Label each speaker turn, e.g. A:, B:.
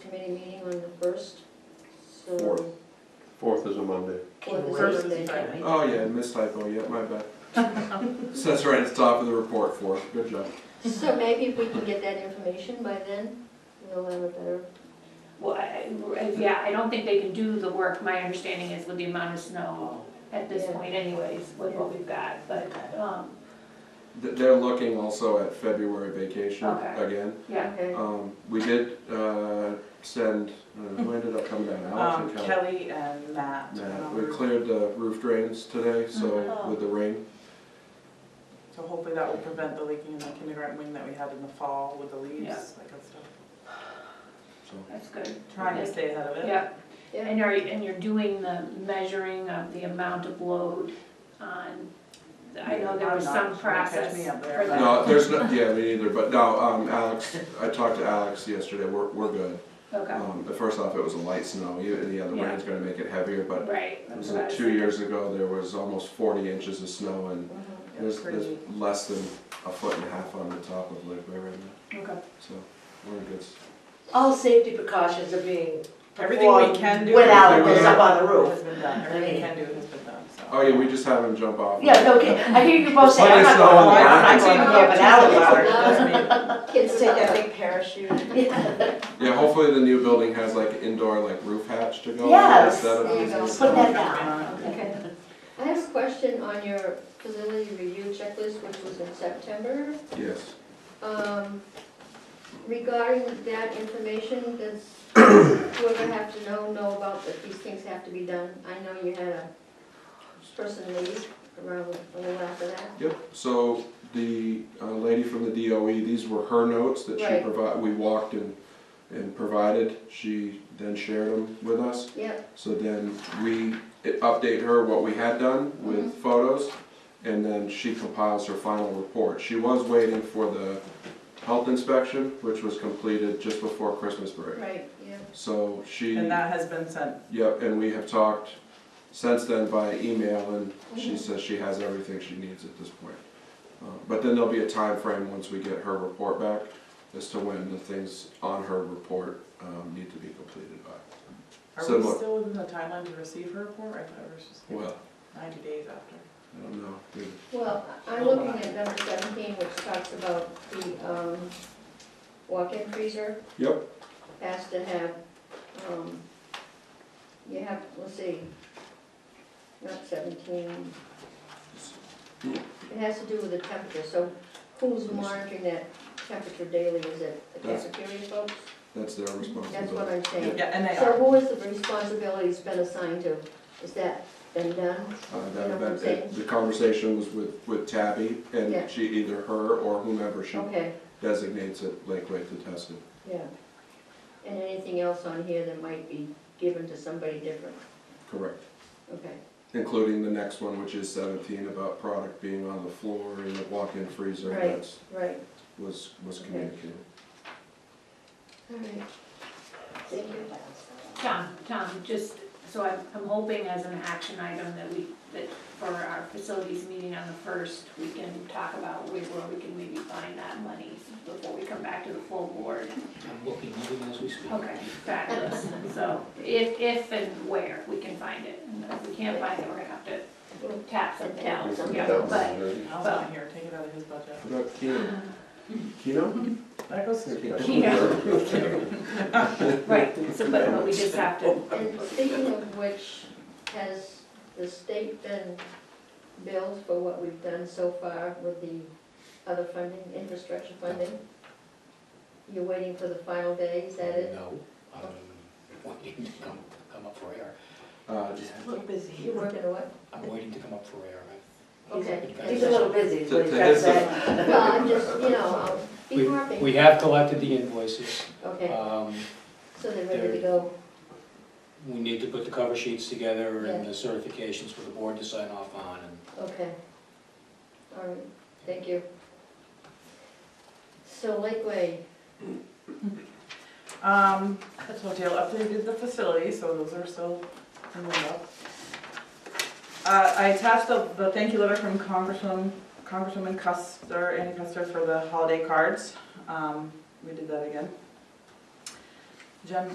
A: committee meeting on the first, so.
B: Fourth. Fourth is a Monday.
A: Fourth is
C: First is
A: Monday.
C: Friday.
B: Oh, yeah, missed typo, yeah, my bad. So that's right, it's top of the report, fourth, good job.
A: So maybe if we can get that information by then, we'll have a better,
C: Well, I- I- yeah, I don't think they can do the work, my understanding is with the amount of snow at this
A: Yeah.
C: point anyways, with what we've got, but, um,
B: Th- They're looking also at February vacation
C: Okay.
B: again.
C: yeah.
A: okay.
D: Uh,
B: Um, we did, uh, send, uh, who ended up coming down,
E: Um,
B: Alex and Kelly?
E: Kelly and Matt.
B: Nah,
E: um,
B: we cleared the roof drains today, so
A: Mhm.
B: with the rain,
E: So hopefully that will prevent the leaking in the kindergarten wing that we had in the fall with the leaves,
C: Yeah.
E: that kind of stuff.
B: so.
C: That's good,
E: Trying to stay ahead of it.
C: yeah.
A: Yeah.
C: And are, you- and you're doing the measuring of the amount of load on, I know there was
E: Yeah,
C: some
E: I'm not- don't catch
C: process
E: me up there,
C: for
E: but-
C: that.
B: No, there's no, yeah, me neither, but no, um, Alex, I talked to Alex yesterday, we're, we're good.
C: Okay,
B: Um, but first off, it was a light snow, you, yeah, the rain's gonna make it heavier, but
C: right.
B: it
C: that's
B: was
C: what I
B: like
C: was
B: two
C: thinking.
B: years ago, there was almost forty inches of snow and
A: Mhm.
E: Yeah,
B: there's,
E: pretty-
B: there's less than a foot and a half on the top of Lake Way right now,
C: Okay,
B: so we're in good. s-
D: All safety precautions are being
E: Everything we
D: performed
E: can do.
D: Without,
B: Everything
D: goes
B: we-
D: up on the
E: Has
D: roof.
E: been done, everything we
D: I
E: can do has been done, so.
B: Oh, yeah, we just have him jump off.
D: Yeah, no, okay, I hear you both say, I'm not
B: Plenty of
D: going,
B: snow on
E: Oh,
D: up,
B: the
D: I'm not
B: ground.
D: going up and out of the water.
A: Kids take that big parachute.
B: Yeah, hopefully the new building has like indoor like roof hatch to go.
D: Yes,
B: instead of
A: there you
B: these
A: go.
B: little
D: Put that
B: stuff.
D: down.
A: Okay. I have a question on your facility review checklist, which was in September.
B: Yes,
A: Um, Regarding that information, does whoever have to know, know about that these things have to be done? I know you had a person leave around a little after that.
B: yep, so the uh, lady from the DOE, these were her notes that she
A: Right.
B: provided, we walked and, and provided. She then shared them with us,
A: Yep,
B: so then we i- update her what we had done with
E: Mm-hmm.
B: photos, and then she compiles her final report. She was waiting for the health inspection, which was completed just before Christmas break.
A: right, yeah.
B: So she.
E: And that has been sent,
B: Yep, and we have talked since then via email, and she
E: Mm-hmm.
A: Mhm.
B: says she has everything she needs at this point. Uh, But then there'll be a time frame once we get her report back as to when the things on her report um, need to be completed by.
E: are
B: So
E: we
B: what-
E: still within the timeline to receive her report? I thought it was just
B: Well,
E: ninety days after.
B: I don't know. dude.
A: Well, I'm looking at number seventeen, which talks about the, um, walk-in freezer
B: Yep,
A: has to have, um, you have, let's see, not seventeen. It has to do with the temperature, so who's monitoring that temperature daily? Is it the
B: That's-
A: cafeteria folks?
B: that's their
A: That's what
B: responsibility.
A: I'm saying.
E: Yeah, and they
A: So
E: are,
A: who is the responsibility's been assigned to? Is that been done?
B: Uh,
A: You know
B: that-
A: what I'm
B: that-
A: saying?
B: The conversation was with, with Tabby,
A: Yeah.
B: and she, either her or whomever she
A: Okay.
B: designates at Lakeway to test it.
A: Yeah. And anything else on here that might be given to somebody different?
B: Correct.
A: Okay.
B: Including the next one, which is seventeen, about product being on the floor in the walk-in freezer,
A: Right.
B: that's,
A: Right.
B: was, was
A: Okay.
B: communicated.
A: All right. Thank you.
C: Tom, Tom, just, so I'm, I'm hoping as an action item that we, that for our facilities meeting on the first, we can talk about where, where we can maybe find that money before we come back to the full board.
F: I'm looking even as we speak.
C: Okay, fabulous, so if, if and where we can find it, and if we can't find it, we're gonna have to tap something else, yeah, but,
E: Al's not here, take it out of his budget.
B: What about Keno? Keno?
E: That goes to.
C: right, so, but, but we just have to,
A: And speaking of which, has the state been billed for what we've done so far with the other funding, infrastructure funding? You're waiting for the final day, is that it?
F: No, um, I'm waiting to come, come up for air.
B: Uh,
D: We're busy.
A: You're working on what?
F: I'm waiting to come up for air. I-
A: Okay.
D: He's a little busy, is what he's
B: To- to
D: trying to
B: his-
D: say.
A: Well, I'm just, you know, I'll be
F: We-
A: working.
F: We have collected the invoices.
A: Okay,
F: Um,
A: so they're ready to go.
F: we need to put the cover sheets together and
A: Yeah.
F: the certifications for the board to sign off on and
A: Okay. All right, thank you. So Lakeway,
E: Um, so Dale updated the facility, so those are still in limbo. Uh, I attached the, the thank you letter from Congresswoman, Congresswoman Custer, Annie Custer for the holiday cards. Um, we did that again. Jen